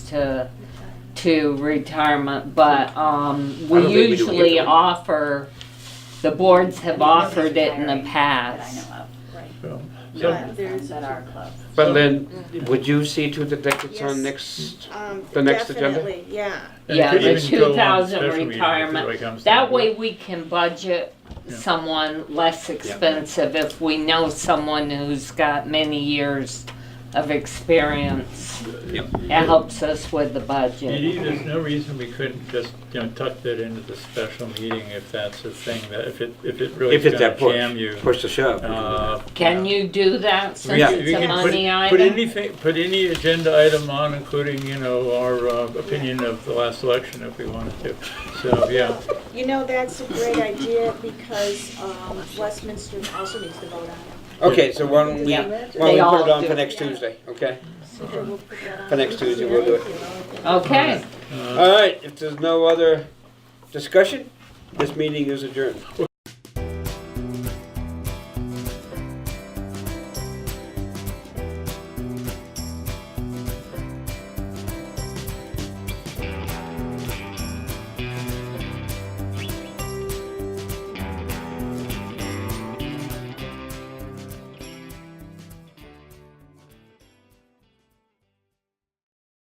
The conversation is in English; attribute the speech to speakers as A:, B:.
A: to to retirement, but um,
B: I
A: we
B: don't think we do
A: usually
B: either.
A: offer. The boards have offered it in the past.
C: That I know
B: So-
C: of. Not At our club.
B: But Lynn, would you see to the deck that's
D: Yes.
B: on next,
D: Um,
B: The next agenda?
D: Definitely, yeah.
E: And
A: Yeah,
E: it could
A: the
E: even go on
A: 2000
E: special meeting if it
A: retirement.
E: really comes
A: That
E: down.
A: way we can budget
E: Yeah.
A: someone less expensive if we know someone who's got many years of experience. It helps us with the budget.
E: Indeed, there's no reason we couldn't just, you know, tuck that into the special meeting if that's the thing, that if it, if it really
B: if it's
E: is gonna
B: that
E: jam
B: push,
E: you.
B: push the shove? we can do that.
E: uh,
A: Can you do that since
E: We
A: it's a
E: can put-
A: money
E: Put
A: item?
E: anything, put any agenda item on, including, you know, our uh, opinion of the last election if we wanted to. So, yeah,
D: You know, that's a great idea because um, Westminster also needs to vote on it.
B: Okay, so why don't we,
A: Yeah.
B: why
A: They
B: don't we put
A: all
B: it on
A: do.
B: for next Tuesday, okay?
D: So we'll put that on.
B: For next Tuesday, we'll do it.
A: Okay.
B: All right, if there's no other discussion, this meeting is adjourned.